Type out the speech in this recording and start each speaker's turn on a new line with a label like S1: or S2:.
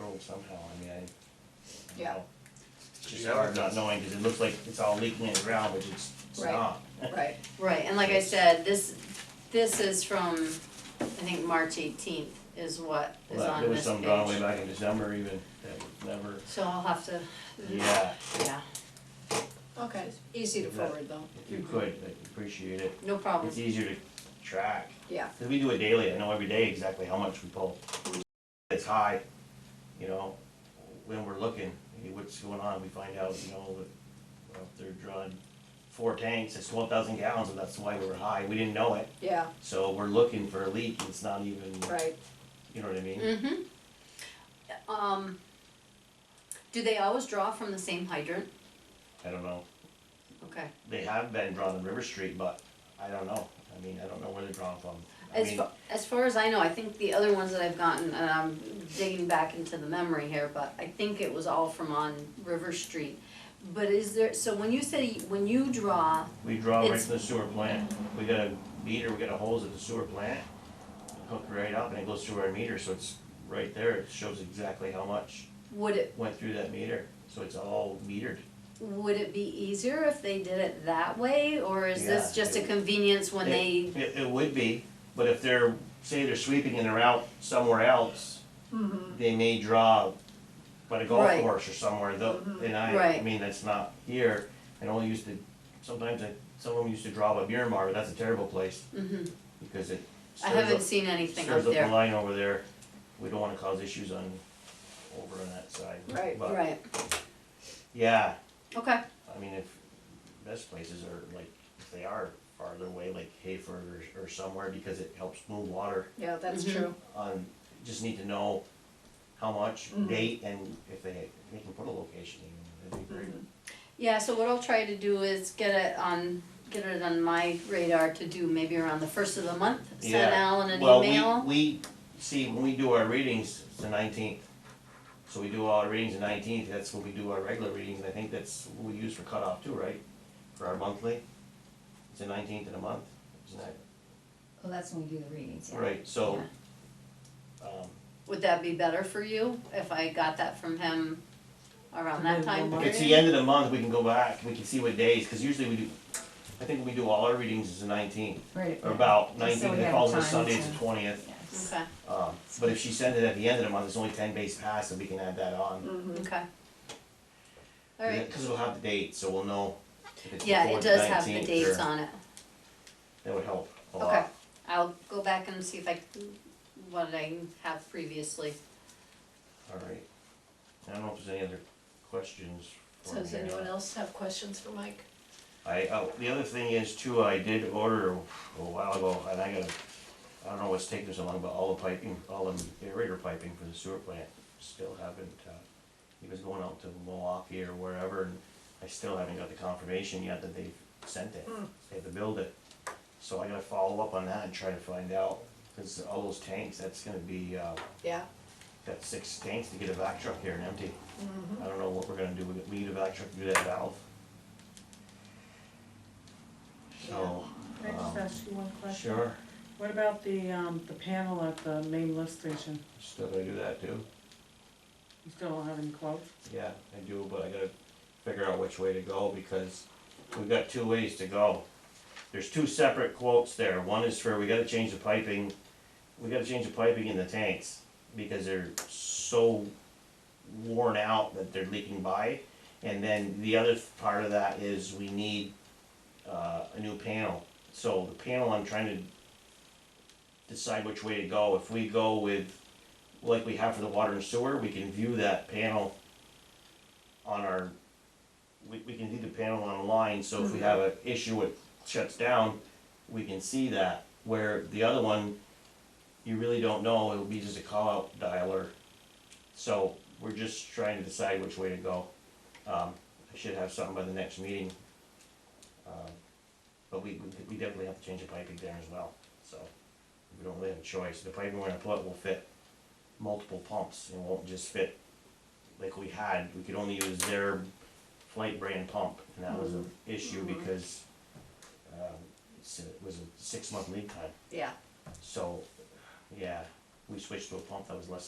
S1: way somehow, I mean, I, I don't
S2: Yeah.
S1: know. It's just
S3: Yeah.
S1: hard not knowing, cause it looks like it's all leaking in the ground, but it's, it's
S2: Right.
S1: not.
S2: right,
S4: Right, and like I said, this, this is from, I think, March eighteenth is what is
S1: Well, that-
S4: on this
S1: There was some gone way
S4: page.
S1: back in December even, that was never,
S4: So I'll have to,
S1: yeah,
S4: yeah,
S2: okay, easy to forward though,
S1: if you could, I'd appreciate it,
S4: no problem,
S1: it's easier to track.
S2: yeah,
S1: Cause we do it daily, I know every day exactly how much we pull. It's high, you know, when we're looking, hey, what's going on, we find out, you know, that, well, if they're drawing four tanks, it's twelve thousand gallons, and that's why we were high, we didn't know it.
S2: yeah,
S1: So we're looking for a leak, and it's not even,
S2: right.
S1: you know what I mean?
S4: mhm. Um, do they always draw from the same hydrant?
S1: I don't know,
S4: Okay,
S1: they have been drawn on River Street, but I don't know, I mean, I don't know where they're drawn from. I
S4: as
S1: mean,
S4: far, as far as I know, I think the other ones that I've gotten, and I'm digging back into the memory here, but I think it was all from on River Street. But is there, so when you say, when you draw,
S1: We draw right
S4: It's-
S1: from the sewer plant, we got a meter, we got a hose at the sewer plant, hook right up and it goes through our meter, so it's right there, it shows exactly how much
S4: would it
S1: went through that meter, so it's all metered.
S4: Would it be easier if they did it that way, or is this
S1: Yeah,
S4: just a
S1: it-
S4: convenience when they,
S1: It- It, it would be, but if they're, say they're sweeping in they're out somewhere else,
S2: Mm-hmm,
S1: they may draw by the golf
S4: Right. Mm-hmm.
S1: course or somewhere, though, and I, I
S4: Right.
S1: mean, that's not here, and only used to, sometimes I, some of them used to draw by Miramar, but that's a terrible place,
S4: Mhm.
S1: because it stirs
S4: I
S1: up
S4: haven't seen anything up
S1: Stirs up the
S4: there,
S1: line over there, we don't wanna cause issues on, over on that side.
S2: Right,
S1: But,
S4: right,
S1: Yeah,
S4: okay,
S1: I mean, if, best places are like, if they are farther away, like Hayford or, or somewhere, because it helps move water
S2: yeah, that's
S1: Mm-hmm.
S4: Mhm.
S2: true,
S1: on, um, just need to know how much,
S4: Mm-hmm.
S2: Mhm.
S1: date, and if they, they can put a location in, that'd be great.
S4: Mm-hmm. yeah, so what I'll try to do is get it on, get it on my radar to do maybe around the first of the month,
S1: Yeah.
S4: send Alan an
S1: Well,
S4: email.
S1: we- We, see, when we do our readings, it's the nineteenth, so we do all our readings the nineteenth, that's when we do our regular readings, and I think that's what we use for cutoff too, right? For our monthly, it's the nineteenth of the month, isn't that,
S5: Well, that's when we do the readings, yeah.
S1: right, so. Um,
S4: Would that be better for you, if I got that from him around that time
S1: if
S4: period?
S1: it's the end of the month, we can go back, we can see what days, cause usually we do, I think we do all our readings is the nineteenth,
S5: Right.
S1: or about
S5: we
S1: nineteenth,
S5: have
S1: it falls on
S5: time
S1: Sunday, it's
S5: to-
S1: the twentieth.
S5: Yes.
S4: Okay,
S1: Um, but if she sends it at the end of the month, it's only ten days past, and we can add that on.
S4: Mm.
S2: mm-hmm,
S4: okay. Alright,
S1: Because we'll have the date, so we'll know if it's
S4: yeah,
S1: before
S4: it
S1: the
S4: does have the
S1: 19th
S4: dates
S1: or-
S4: on it.
S1: That would help a lot.
S4: Okay, I'll go back and see if I, can- what I have previously.
S1: Alright. I don't know if there's any other questions for
S2: so does
S1: Mary.
S2: anyone else have questions for Mike?
S1: I, oh, the other thing is too, I did order a while ago, and I gotta, I don't know what's taking so long, but all the piping, all the aerator piping for the sewer plant, still haven't, uh, he was going out to Milwaukee or wherever, and I still haven't got the confirmation yet that they've sent it,
S2: Hmm.
S1: they have to build it. So I gotta follow up on that and try to find out, cause all those tanks, that's gonna be, uh,
S2: Yeah,
S1: got six tanks to get a vac truck here and empty. I don't know what we're gonna do, with it. we need a vac truck to do that valve. So,
S6: Can I just
S1: Um,
S6: ask you one question?
S1: sure,
S6: What about the, um, the panel at the main lift station?
S1: still gonna do that too,
S6: You still don't have any quotes?
S1: yeah, I do, but I gotta figure out which way to go, because we've got two ways to go. There's two separate quotes there, one is for, we gotta change the piping, we gotta change the piping in the tanks, because they're so worn out that they're leaking by. And then the other part of that is we need uh, a new panel. So the panel, I'm trying to decide which way to go. If we go with, like we have for the water and sewer, we can view that panel on our, we, we can view the panel online, so if we have an issue, it shuts down, we can see that. Where the other one, you really don't know, it'll be just a call-out dialer. So we're just trying to decide which way to go. Um, I should have something by the next meeting. Um, But we, we- we definitely have to change the piping there as well, so we don't really have a choice. The piping we're gonna put will fit multiple pumps, and won't just fit like we had. We could only use their flight brand pump, and that was an issue because, um, it's a- it was a six-month lead time.
S2: yeah.
S1: So, yeah, we switched to a pump that was less